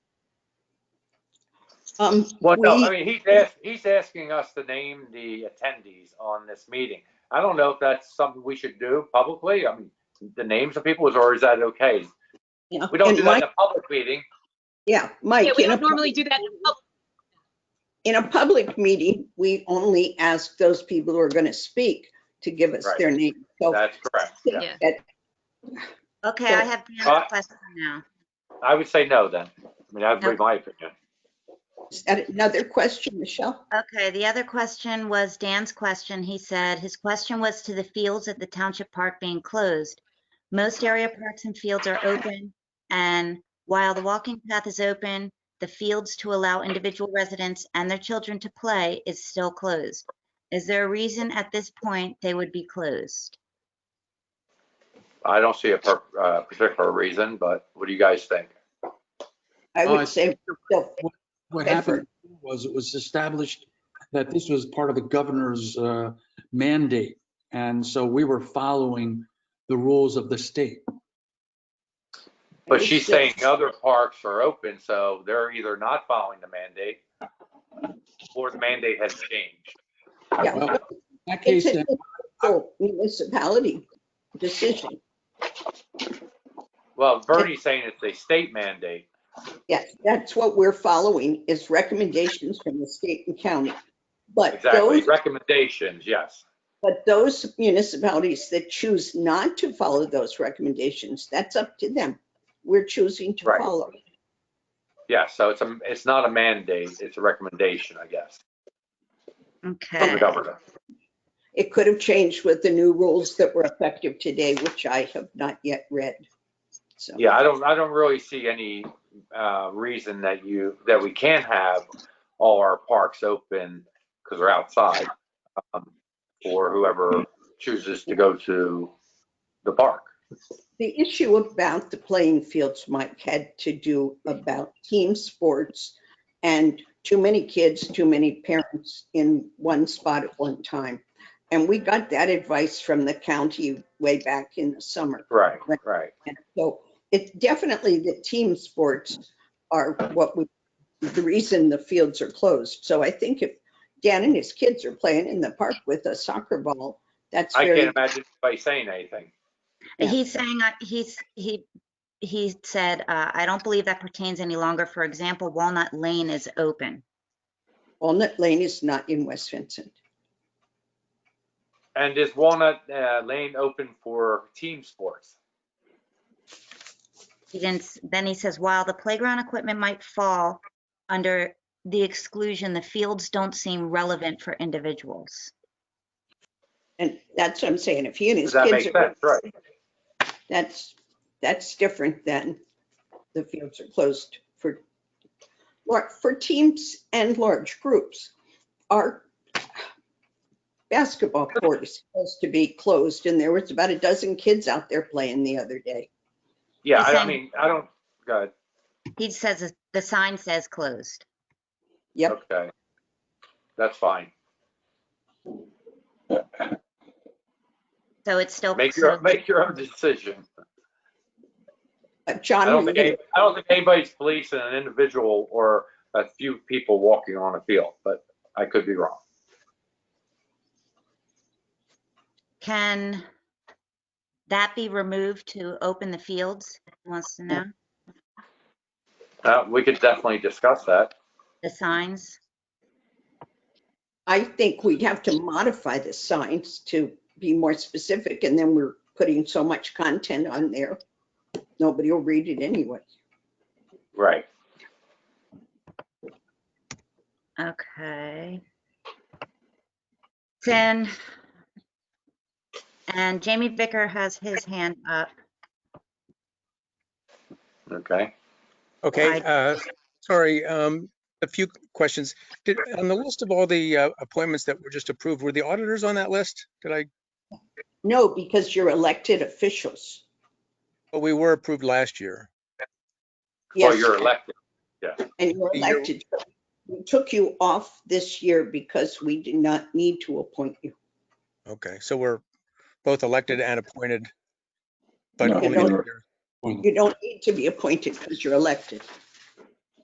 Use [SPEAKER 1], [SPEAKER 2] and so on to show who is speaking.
[SPEAKER 1] Um,
[SPEAKER 2] Well, no, I
[SPEAKER 1] we,
[SPEAKER 2] mean, he's ask, he's asking us to name the attendees on this meeting. I don't know if that's something we should do publicly. I mean, the names of people, or is that okay?
[SPEAKER 1] you know,
[SPEAKER 2] We don't
[SPEAKER 1] and
[SPEAKER 2] do that in
[SPEAKER 1] Mike-
[SPEAKER 2] a public meeting.
[SPEAKER 1] Yeah,
[SPEAKER 3] Yeah,
[SPEAKER 1] Mike,
[SPEAKER 3] we
[SPEAKER 1] in a,
[SPEAKER 3] don't
[SPEAKER 1] pub-
[SPEAKER 3] normally do that in public.
[SPEAKER 1] in a public meeting, we only ask those people who are going to speak to give us
[SPEAKER 2] Right.
[SPEAKER 1] their name. So
[SPEAKER 2] That's correct. Yeah.
[SPEAKER 3] Yeah.
[SPEAKER 1] that-
[SPEAKER 4] Okay,
[SPEAKER 1] So-
[SPEAKER 4] I have
[SPEAKER 2] Uh,
[SPEAKER 4] another question now.
[SPEAKER 2] I would say no then. I mean, that would be
[SPEAKER 4] Okay.
[SPEAKER 2] my opinion.
[SPEAKER 1] is that another question, Michelle?
[SPEAKER 4] Okay, the other question was Dan's question. He said, his question was to the fields at the township park being closed. Most area parks and fields are open, and while the walking path is open, the fields to allow individual residents and their children to play is still closed. Is there a reason at this point they would be closed?
[SPEAKER 2] I don't see a per, uh, particular reason, but what do you guys think?
[SPEAKER 1] I
[SPEAKER 5] Oh, I
[SPEAKER 1] would say, so,
[SPEAKER 5] What
[SPEAKER 1] Bedford.
[SPEAKER 5] happened was it was established that this was part of the governor's uh, mandate. And so we were following the rules of the state.
[SPEAKER 2] But
[SPEAKER 1] It's
[SPEAKER 2] she's
[SPEAKER 1] still-
[SPEAKER 2] saying other parks are open, so they're either not following the mandate or the mandate has changed.
[SPEAKER 1] yeah,
[SPEAKER 5] Well, In that case,
[SPEAKER 1] it's
[SPEAKER 5] then,
[SPEAKER 1] a local municipality decision.
[SPEAKER 2] Well, Bernie's saying it's a state mandate.
[SPEAKER 1] Yes, that's what we're following is recommendations from the state and county. But
[SPEAKER 2] Exactly.
[SPEAKER 1] those,
[SPEAKER 2] Recommendations, yes.
[SPEAKER 1] but those municipalities that choose not to follow those recommendations, that's up to them. We're choosing to
[SPEAKER 2] Right.
[SPEAKER 1] follow.
[SPEAKER 2] Yeah, so it's a, it's not a mandate, it's a recommendation, I guess, from
[SPEAKER 4] Okay,
[SPEAKER 2] the governor.
[SPEAKER 1] It could have changed with the new rules that were effective today, which I have not yet read. So,
[SPEAKER 2] Yeah, I don't, I don't really see any uh, reason that you, that we can't have all our parks open because they're outside um, for whoever chooses to go to the park.
[SPEAKER 1] the issue about the playing fields, Mike, had to do about team sports and too many kids, too many parents in one spot at one time. And we got that advice from the county way back in the summer.
[SPEAKER 2] Right, right.
[SPEAKER 1] And So it's definitely the team sports are what we, the reason the fields are closed. So I think if Dan and his kids are playing in the park with a soccer ball, that's
[SPEAKER 2] I
[SPEAKER 1] very,
[SPEAKER 2] can't imagine by saying anything.
[SPEAKER 1] Yeah.
[SPEAKER 4] he's saying, uh, he's, he, he said, uh, I don't believe that pertains any longer. For example, Walnut Lane is open.
[SPEAKER 1] Walnut Lane is not in West Vincent.
[SPEAKER 2] And is Walnut uh, Lane open for team sports?
[SPEAKER 4] He didn't, s- then he says, while the playground equipment might fall under the exclusion, the fields don't seem relevant for individuals.
[SPEAKER 1] And that's what I'm saying. If he and
[SPEAKER 2] Does
[SPEAKER 1] his
[SPEAKER 2] that make
[SPEAKER 1] kids are,
[SPEAKER 2] sense? Right.
[SPEAKER 1] that's, that's different than the fields are closed for, lar- for teams and large groups. Our basketball court is supposed to be closed and there was about a dozen kids out there playing the other day.
[SPEAKER 2] Yeah, I I
[SPEAKER 4] Listen.
[SPEAKER 2] mean, I don't, good,
[SPEAKER 4] He says, that the sign says closed.
[SPEAKER 1] Yep,
[SPEAKER 2] okay. That's fine.
[SPEAKER 4] So it's still.
[SPEAKER 2] Make
[SPEAKER 4] so-
[SPEAKER 2] your, make your own decision.
[SPEAKER 1] Uh,
[SPEAKER 2] I
[SPEAKER 1] John,
[SPEAKER 2] don't
[SPEAKER 1] were you
[SPEAKER 2] think,
[SPEAKER 1] gonna-
[SPEAKER 2] any- I don't think anybody's policing an individual or a few people walking on a field, but I could be wrong.
[SPEAKER 4] Can that be removed to open the fields? He Wants to know,
[SPEAKER 2] Uh, we could definitely discuss that.
[SPEAKER 4] the signs?
[SPEAKER 1] I think we'd have to modify the signs to be more specific and then we're putting so much content on there. Nobody will read it anyway.
[SPEAKER 2] Right.
[SPEAKER 4] Okay. Then, and Jamie Vicker has his hand up.
[SPEAKER 2] Okay.
[SPEAKER 6] Okay,
[SPEAKER 4] I-
[SPEAKER 6] uh, sorry, um, a few questions. Did, on the list of all the uh, appointments that were just approved, were the auditors on that list? Did I,
[SPEAKER 1] No, because you're elected officials.
[SPEAKER 6] well, we were approved last year.
[SPEAKER 2] Well,
[SPEAKER 1] Yes,
[SPEAKER 2] you're elected.
[SPEAKER 1] And you're
[SPEAKER 6] You're-
[SPEAKER 1] elected. We took you off this year because we did not need to appoint you.
[SPEAKER 6] Okay, so we're both elected and appointed. But
[SPEAKER 5] No,
[SPEAKER 6] only
[SPEAKER 1] no.
[SPEAKER 6] the-
[SPEAKER 1] You don't need to be appointed because you're elected.